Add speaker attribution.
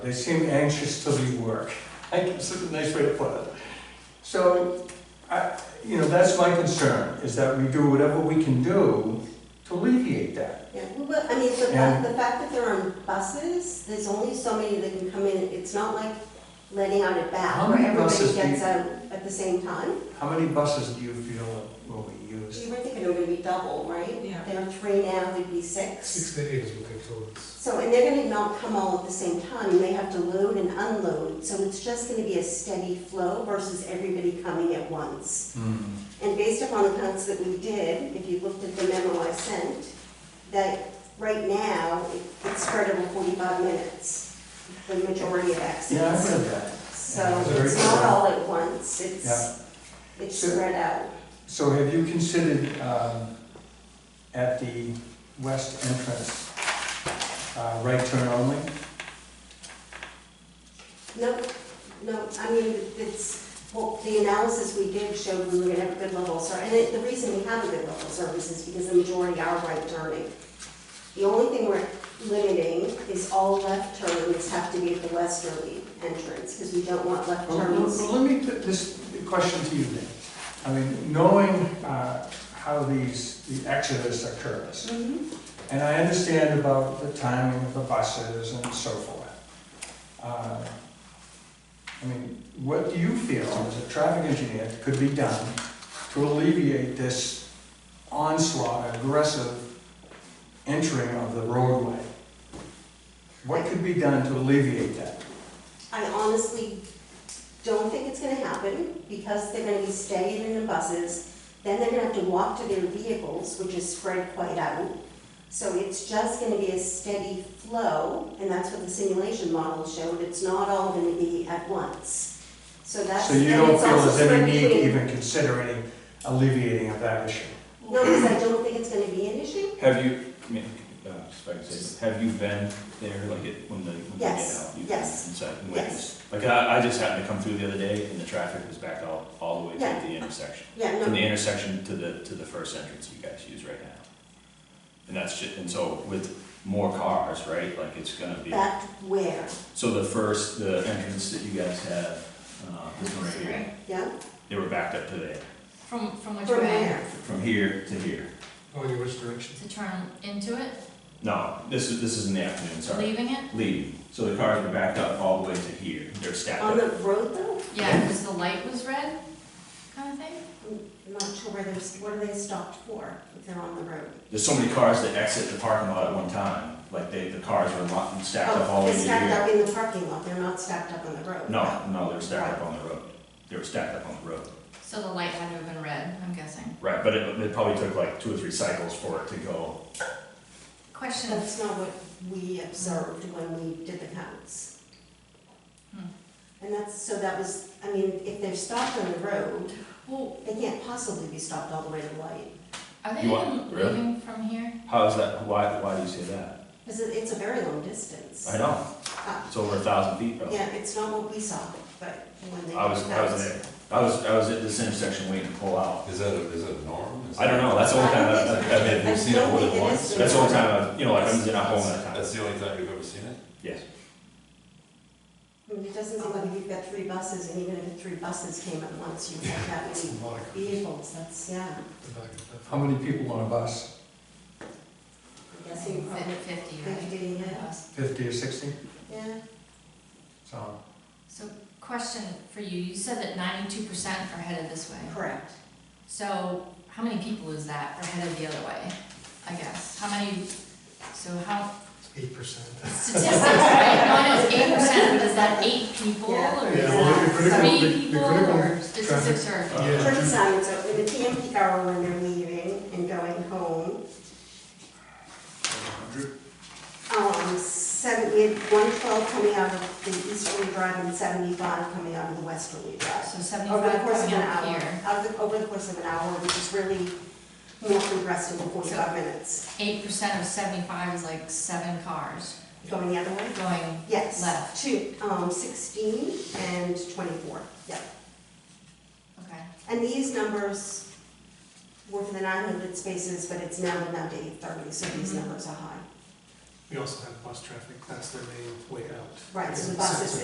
Speaker 1: They seem anxious to leave work. I guess it's a nice way to put it. So, I, you know, that's my concern, is that we do whatever we can do to alleviate that.
Speaker 2: Yeah, well, but, I mean, the
Speaker 1: Yeah.
Speaker 2: fact, the fact that they're on buses, there's only so many that can come in, it's not like letting out at
Speaker 1: How
Speaker 2: bat where
Speaker 1: many
Speaker 2: everybody
Speaker 1: buses do
Speaker 2: gets
Speaker 1: you-
Speaker 2: out at the same time.
Speaker 1: How many buses do you feel will be
Speaker 2: You
Speaker 1: used?
Speaker 2: were thinking it were gonna be double, right?
Speaker 3: Yeah.
Speaker 2: There are three now, there'd be six.
Speaker 4: Six to eight is what they told us.
Speaker 2: So, and they're gonna not come all at the same time, they have to load and unload, so it's just gonna be a steady flow versus everybody coming at once.
Speaker 1: Hmm.
Speaker 2: And based upon the cuts that we did, if you looked at the memo I sent, that right now, it's spread over forty-five minutes, the majority of
Speaker 1: Yeah, I've
Speaker 2: accidents.
Speaker 1: heard that.
Speaker 2: So
Speaker 1: Very
Speaker 2: it's not
Speaker 1: true.
Speaker 2: all at once, it's, it's
Speaker 1: So-
Speaker 2: spread out.
Speaker 1: So have you considered, um, at the west entrance, uh, right turn only?
Speaker 2: No, no, I mean, it's, well, the analysis we did showed we were gonna have a good level of service. And it- the reason we have a good level of service is because the majority are right turning. The only thing we're limiting is all left turns have to be at the westerly entrance, because we don't want left
Speaker 1: Well, well,
Speaker 2: turns.
Speaker 1: well, let me put this question to you then. I mean, knowing, uh, how these, the exodus occurs,
Speaker 2: Mhm.
Speaker 1: And I understand about the timing of the buses and so forth. Uh, I mean, what do you feel as a traffic engineer could be done to alleviate this onslaught, aggressive entering of the roadway? What could be done to alleviate that?
Speaker 2: I honestly don't think it's gonna happen, because they're gonna be staying in the buses, then they're gonna have to walk to their vehicles, which is spread quite out. So it's just gonna be a steady flow, and that's what the simulation model showed, it's not all gonna be at once. So that's.
Speaker 1: So you
Speaker 2: and
Speaker 1: don't
Speaker 2: it's
Speaker 1: feel
Speaker 2: also
Speaker 1: there's any
Speaker 2: spread
Speaker 1: need to
Speaker 2: between-
Speaker 1: even consider any alleviating of that issue?
Speaker 2: No, because I don't think it's gonna be an issue,
Speaker 5: Have you, I mean, uh, if I could say, but have you been there, like, it- when they, when they get
Speaker 2: Yes,
Speaker 5: out? you've been
Speaker 2: yes,
Speaker 5: Inside
Speaker 2: yes.
Speaker 5: and witnessed? Like, I, I just happened to come through the other day, and the traffic was backed all, all the way to
Speaker 2: Yeah.
Speaker 5: the intersection.
Speaker 2: yeah,
Speaker 5: From the
Speaker 2: no,
Speaker 5: intersection to the, to the first entrance you guys use right now. And that's just, and so with more cars, right, like, it's gonna be,
Speaker 2: back where,
Speaker 5: so the first, the entrance that you guys had, uh, this one right here,
Speaker 2: yeah,
Speaker 5: they were backed up to there,
Speaker 3: From, from which
Speaker 2: from
Speaker 3: way?
Speaker 2: where?
Speaker 5: from here to here.
Speaker 4: Oh, in which direction?
Speaker 3: To turn into it,
Speaker 5: No, this is, this is in the afternoon, sorry.
Speaker 3: leaving it?
Speaker 5: leave. So the cars were backed up all the way to here. They're stacked
Speaker 2: On the
Speaker 5: up.
Speaker 2: road though,
Speaker 3: Yeah, because the light was red, kind of thing?
Speaker 2: I'm not sure where there's, what are they stopped for, if they're on the road?
Speaker 5: There's so many cars that exit the parking lot at one time. Like they, the cars were locked, stacked up all
Speaker 2: Oh, they're
Speaker 5: the way to
Speaker 2: stacked
Speaker 5: here.
Speaker 2: up in the parking lot, they're not stacked up on the road.
Speaker 5: No, no, they were stacked up on the road. They were stacked up on the road.
Speaker 3: So the light had to have been red, I'm guessing.
Speaker 5: Right, but it, it probably took like two or three cycles for it to go.
Speaker 3: Question,
Speaker 2: That's not what we observed when we did the counts.
Speaker 3: Hmm.
Speaker 2: And that's, so that was, I mean, if they're stopped on the road,
Speaker 3: well,
Speaker 2: they can't possibly be stopped all the way to the light.
Speaker 3: are they
Speaker 5: You want-
Speaker 3: even
Speaker 5: really?
Speaker 3: leaving from here?
Speaker 5: How is that? Why, why do you say that?
Speaker 2: Because it- it's a very long distance. Uh,
Speaker 5: I know. It's over a thousand feet, bro.
Speaker 2: Yeah, it's not what we saw, but when they.
Speaker 5: I was,
Speaker 2: did the
Speaker 5: I was
Speaker 2: counts.
Speaker 5: there. I was, I was at this intersection waiting to pull out.
Speaker 6: Is that a, is that a norm? Is
Speaker 5: I don't
Speaker 6: that-
Speaker 5: know. That's the only time
Speaker 2: I
Speaker 5: I,
Speaker 2: don't
Speaker 5: I, I
Speaker 6: Have
Speaker 5: mean,
Speaker 6: you
Speaker 2: I
Speaker 6: seen it
Speaker 2: don't
Speaker 6: more
Speaker 2: think
Speaker 6: than
Speaker 2: it
Speaker 6: once?
Speaker 2: is.
Speaker 5: that's the only time I, you know, like I was in a home at a
Speaker 6: That's
Speaker 5: time.
Speaker 6: the only time you've ever seen it?
Speaker 5: Yes.
Speaker 2: I mean, It doesn't seem like if you've got three buses, and even if the three buses came at once, you'd have that
Speaker 4: It's
Speaker 2: many
Speaker 4: a lot of cars.
Speaker 2: vehicles, that's, yeah.
Speaker 4: The back of that.
Speaker 1: How many people on a bus?
Speaker 2: I'm guessing probably
Speaker 3: Fifty, right?
Speaker 2: fifty, yeah.
Speaker 1: Fifty or sixty?
Speaker 2: Yeah.
Speaker 1: So,
Speaker 3: So question for you, you said that ninety-two percent are headed this way.
Speaker 2: Correct.
Speaker 3: So how many people is that are headed the other way, I guess? How many, so how,
Speaker 4: Eight percent.
Speaker 3: Uh, statistics, right? No, I know it's eight percent, but is that eight people
Speaker 2: Yeah.
Speaker 3: or
Speaker 4: Yeah,
Speaker 3: is
Speaker 4: well,
Speaker 3: that
Speaker 4: the critical,
Speaker 3: three
Speaker 4: the- the
Speaker 3: people
Speaker 4: critical,
Speaker 3: or statistics are?
Speaker 4: yeah.
Speaker 2: Turn signs up in the PM peak hour when they're leaving and going home. Um, seven, we had one twelve coming out of the easterly drive and seventy-five coming out of the westerly drive.
Speaker 3: So
Speaker 2: Over the
Speaker 3: seventy-five
Speaker 2: course of
Speaker 3: coming
Speaker 2: an
Speaker 3: up
Speaker 2: hour,
Speaker 3: here,
Speaker 2: out of the, over the course of an hour, which is really more compressed into forty-five minutes.
Speaker 3: eight percent of seventy-five is like seven cars
Speaker 2: Going the other way?
Speaker 3: going
Speaker 2: Yes.
Speaker 3: Left.
Speaker 2: Two, um, sixteen and twenty-four, yeah.
Speaker 3: Okay,
Speaker 2: And these numbers
Speaker 4: Mm-hmm.
Speaker 2: were for the nine hundred spaces, but it's now been up to eight thirty, so these
Speaker 3: Mhm.
Speaker 2: numbers are high.
Speaker 1: We also have bus traffic, that's their main way out.
Speaker 4: Right, so the
Speaker 1: It's-
Speaker 4: buses